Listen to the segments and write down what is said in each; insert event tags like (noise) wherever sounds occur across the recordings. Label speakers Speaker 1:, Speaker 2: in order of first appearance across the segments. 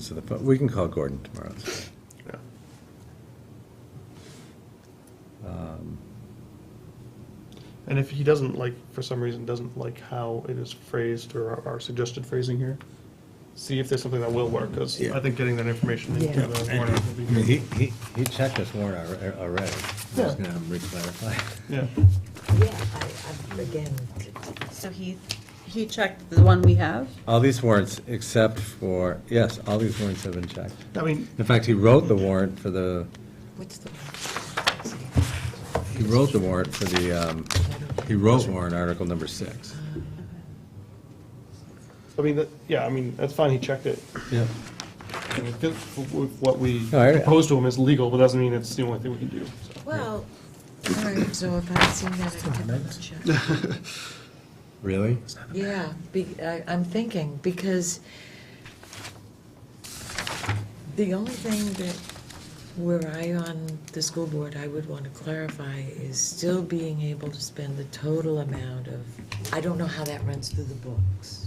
Speaker 1: So the, phone- we can call Gordon tomorrow.
Speaker 2: Yeah. And if he doesn't like, for some reason, doesn't like how it is phrased or our- our suggested phrasing here, see if there's something that will work, because
Speaker 1: Yeah.
Speaker 2: I think getting that information into
Speaker 3: Yeah.
Speaker 2: the warrant will be
Speaker 1: I mean, he,
Speaker 2: good.
Speaker 1: he, he checked us warrant alre- uh, already. I'm just
Speaker 2: Yeah.
Speaker 1: gonna re-clarify.
Speaker 2: Yeah,
Speaker 3: Yeah, I, I, again, t- t-
Speaker 4: So he, he checked the one we have?
Speaker 1: All these warrants, except for, yes, all these warrants have been checked.
Speaker 2: I mean,
Speaker 1: In fact, he wrote the warrant for the,
Speaker 3: what's the?
Speaker 1: he wrote the warrant for the, um, he wrote warrant article number six.
Speaker 2: I mean, that- yeah, I mean, that's fine, he checked it.
Speaker 1: Yeah.
Speaker 2: I mean, this- What we
Speaker 1: All right.
Speaker 2: proposed to him is legal, but doesn't mean it's the only thing we can do. so.
Speaker 3: Well, all right, so if I've seen that, I can check.
Speaker 1: Really?
Speaker 3: Yeah, be, I, I'm thinking, because the only thing that, were I on the school board, I would want to clarify is still being able to spend the total amount of, I don't know how that runs through the books.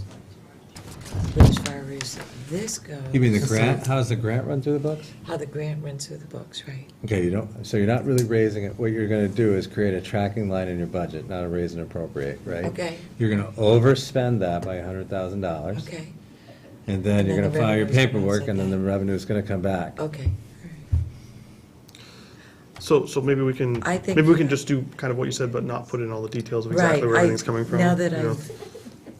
Speaker 3: But as far as this goes.
Speaker 1: You mean the grant, how's the grant run through the books?
Speaker 3: How the grant runs through the books, right?
Speaker 1: Okay, you don't, so you're not really raising it, what you're gonna do is create a tracking line in your budget, not a raise and appropriate, right?
Speaker 3: Okay.
Speaker 1: You're gonna overspend that by a hundred thousand dollars.
Speaker 3: Okay,
Speaker 1: And then you're
Speaker 3: And
Speaker 1: gonna
Speaker 3: then the
Speaker 1: file your
Speaker 3: revenue's gonna
Speaker 1: paperwork,
Speaker 3: sit
Speaker 1: and then the
Speaker 3: there.
Speaker 1: revenue's gonna come back.
Speaker 3: okay.
Speaker 2: So, so maybe we can,
Speaker 3: I think-
Speaker 2: maybe we can just do kind of what you said, but not put in all the details of
Speaker 3: Right.
Speaker 2: exactly where
Speaker 3: I-
Speaker 2: everything's coming from.
Speaker 3: Now that
Speaker 2: you know?
Speaker 3: I've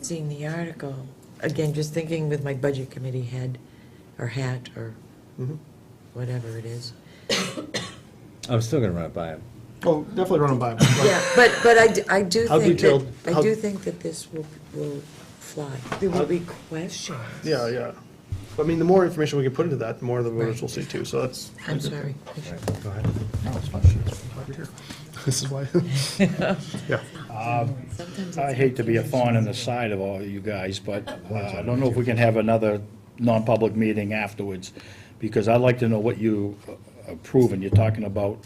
Speaker 3: seen the article, again, just thinking with my budget committee head, or hat, or
Speaker 2: Mhm.
Speaker 3: whatever it is.
Speaker 1: I'm still gonna run it by him.
Speaker 2: Oh, definitely run them by. him. Like,
Speaker 3: Yeah, but, but I, d- I do
Speaker 2: How
Speaker 3: think
Speaker 2: detailed-
Speaker 3: that, I
Speaker 2: how-
Speaker 3: do think that this will, will fly. There will be questions.
Speaker 2: Yeah, yeah. I mean, the more information we can put into that, the more the voters will see too, so that's.
Speaker 3: I'm sorry.
Speaker 1: Go ahead.
Speaker 2: (laughs) This is why. Yeah.
Speaker 3: Sometimes
Speaker 5: I
Speaker 3: it's
Speaker 5: hate to be a thorn in the side of all you guys, but uh, I don't know if we can have another non-public meeting afterwards, because I'd like to know what you uh, approve, and you're talking about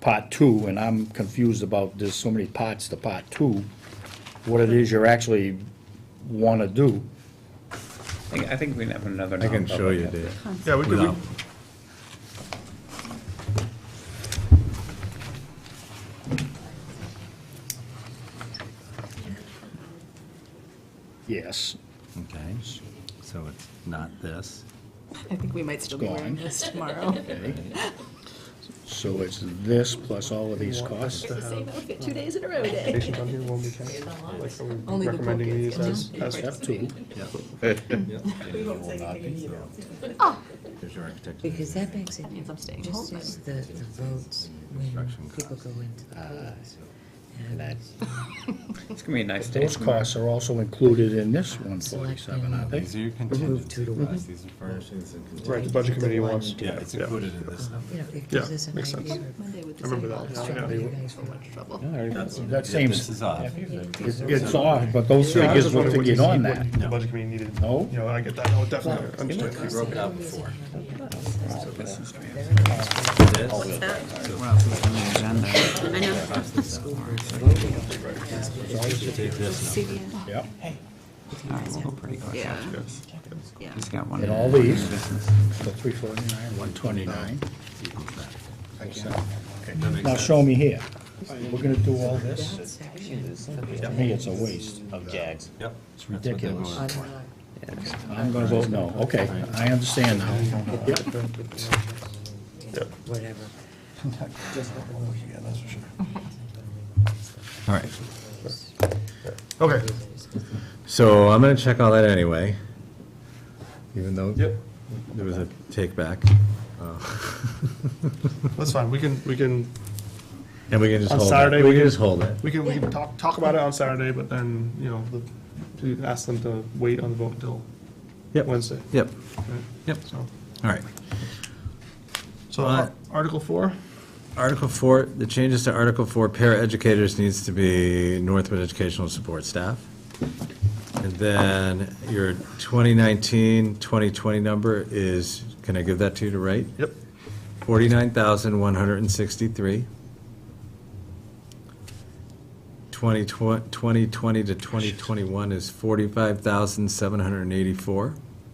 Speaker 5: part two, and I'm confused about, there's so many parts to part two, what it is you're actually want to do.
Speaker 6: I think- I think we can have another.
Speaker 1: I can show you,
Speaker 6: non-public
Speaker 1: Dave.
Speaker 2: Yeah, we could, we-
Speaker 1: Without-
Speaker 5: Yes.
Speaker 1: Okay, so it's not this.
Speaker 7: I think we might still be wearing
Speaker 5: Gone.
Speaker 7: this
Speaker 2: (laughs)
Speaker 7: tomorrow.
Speaker 5: Okay.
Speaker 3: (laughs)
Speaker 5: So it's this plus all of these costs?
Speaker 7: It's the same outfit two days in a row day.
Speaker 2: Patients on here won't be counted. Like, are we
Speaker 7: Only the book
Speaker 2: recommending
Speaker 7: is
Speaker 2: these
Speaker 7: gonna
Speaker 2: as,
Speaker 7: be
Speaker 2: as,
Speaker 5: Step two.
Speaker 1: There's your architecture.
Speaker 3: Ah. Because that makes it,
Speaker 7: Means I'm staying home.
Speaker 3: just as the, the votes, when people go into
Speaker 1: Uh,
Speaker 3: the polls.
Speaker 5: And that-
Speaker 6: It's gonna be a nice day.
Speaker 5: Those costs are also included in this one
Speaker 3: Select
Speaker 5: forty-seven, aren't they?
Speaker 1: uh, These are your contingency costs, these are furnishings and contingency.
Speaker 2: right, the budget committee wants.
Speaker 1: Yeah, it's
Speaker 2: Yeah.
Speaker 1: included in this number.
Speaker 3: You know, it
Speaker 2: Yeah,
Speaker 3: gives us an
Speaker 2: makes
Speaker 3: idea.
Speaker 2: sense.
Speaker 3: of
Speaker 7: Monday with the
Speaker 2: I remember
Speaker 7: same
Speaker 2: that.
Speaker 7: old
Speaker 2: Yeah,
Speaker 3: what
Speaker 2: yeah.
Speaker 3: you guys want.
Speaker 7: trouble.
Speaker 5: That seems,
Speaker 1: This is off.
Speaker 5: it's off, but those
Speaker 2: Yeah, I
Speaker 5: figures
Speaker 2: just
Speaker 5: were
Speaker 2: wondered
Speaker 5: to
Speaker 2: what you
Speaker 5: get on
Speaker 2: see-
Speaker 5: that.
Speaker 2: what The budget committee needed.
Speaker 5: No?
Speaker 2: You know, I get that, no, definitely, understand.
Speaker 1: broke it out before.
Speaker 5: Yep.
Speaker 6: All right, we'll go pretty close.
Speaker 7: Yeah. Yeah.
Speaker 6: He's got one.
Speaker 5: And all these, so three forty-nine, one twenty-nine. Now show me here. We're gonna do all this?
Speaker 3: That section
Speaker 5: To me, it's a waste. Of jags.
Speaker 1: Yep.
Speaker 5: It's ridiculous.
Speaker 3: on our-
Speaker 5: I'm gonna vote no. Okay, I understand now.
Speaker 3: whatever.
Speaker 1: All right,
Speaker 2: Okay,
Speaker 1: so I'm gonna check all that anyway, even though
Speaker 2: Yep.
Speaker 1: there was a take back.
Speaker 2: (laughs) that's fine, we can, we can,
Speaker 1: And we can just
Speaker 2: On
Speaker 1: hold it.
Speaker 2: Saturday, we
Speaker 1: We can
Speaker 2: can-
Speaker 1: just hold it.
Speaker 2: we can, we can talk, talk about it on Saturday, but then, you know, the, to ask them to wait on the vote until
Speaker 1: Yep.
Speaker 2: Wednesday.
Speaker 1: Yep,
Speaker 2: right?
Speaker 1: yep,
Speaker 2: So,
Speaker 1: all right.
Speaker 2: so
Speaker 1: Uh,
Speaker 2: Ar- Article four?
Speaker 1: Article four, the changes to Article four, paraeducators needs to be Northwood Educational Support Staff. And then your 2019, 2020 number is, can I give that to you to write?
Speaker 2: Yep.
Speaker 1: Forty-nine thousand, one hundred and sixty-three. Twenty twenty to twenty twenty-one is forty-five thousand, seven hundred and eighty-four.